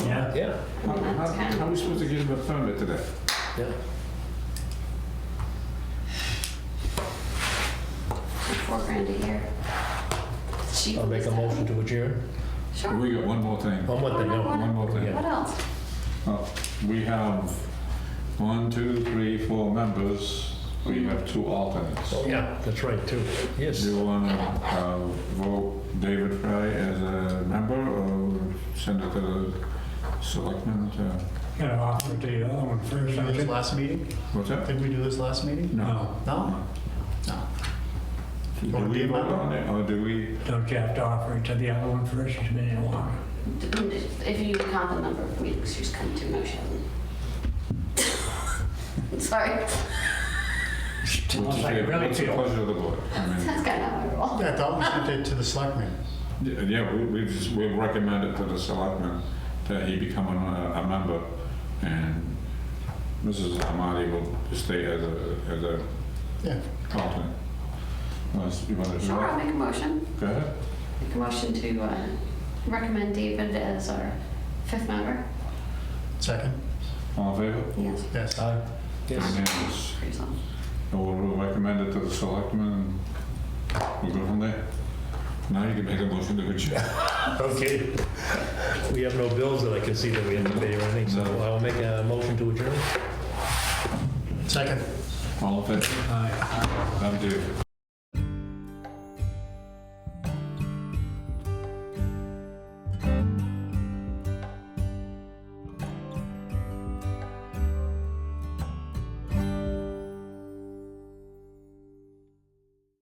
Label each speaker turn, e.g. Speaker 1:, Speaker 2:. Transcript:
Speaker 1: that.
Speaker 2: Yeah,
Speaker 3: How, how, how are we supposed to give them a permit to that?
Speaker 2: yeah.
Speaker 1: Four grand a year. Cheap
Speaker 2: I'll make a
Speaker 1: as hell.
Speaker 2: motion to adjourn.
Speaker 1: Sure.
Speaker 3: We got one more thing.
Speaker 2: One more thing, no.
Speaker 3: One more thing.
Speaker 1: What else?
Speaker 3: Uh, We have one, two, three, four members. We have two alternates.
Speaker 2: Oh, yeah, that's right, too. Yes.
Speaker 3: Do you want to vote David Fry as a member or send it to the selectmen to,
Speaker 4: You know, offer to the other one first.
Speaker 5: Did we
Speaker 4: I
Speaker 5: do this
Speaker 4: think.
Speaker 5: last meeting?
Speaker 3: what's that?
Speaker 5: Did we do this last meeting?
Speaker 4: No,
Speaker 5: No? No.
Speaker 3: Do
Speaker 5: Or
Speaker 3: we
Speaker 5: Dave
Speaker 3: vote
Speaker 5: Miller?
Speaker 3: on it or do we?
Speaker 4: don't you have to offer it to the other one first, you may want
Speaker 1: If you count the number of meetings, she's come to motion. Sorry,
Speaker 3: What's the
Speaker 4: like
Speaker 3: favor-
Speaker 4: really
Speaker 3: what's the
Speaker 4: feel.
Speaker 3: pleasure of the board? I mean,
Speaker 1: that's kind of how I roll.
Speaker 5: Yeah, I thought we sent it to the selectmen.
Speaker 3: yeah, Yeah, we- we just, we recommend it to the selectmen that he become a a member and Mrs. Amadi will stay as a, as a
Speaker 5: Yeah.
Speaker 3: alternate. Unless you want to do
Speaker 1: Sure, I'll
Speaker 3: that?
Speaker 1: make a motion.
Speaker 3: Go ahead.
Speaker 1: Make a motion to uh, recommend David as our fifth member.
Speaker 5: Second?
Speaker 3: All in favor?
Speaker 1: Yes.
Speaker 5: Yes.
Speaker 2: Aye. Uh, Yes.
Speaker 3: Unanimous.
Speaker 1: Pretty solid.
Speaker 3: We'll recommend it to the selectmen, and we'll go from there. Now you can make a motion to adjourn.
Speaker 2: Okay. We have no bills that I can see that we have to pay or anything, so
Speaker 3: No.
Speaker 2: I'll make a motion to adjourn.
Speaker 5: Second?
Speaker 3: All in favor?
Speaker 4: to.
Speaker 3: Thank you.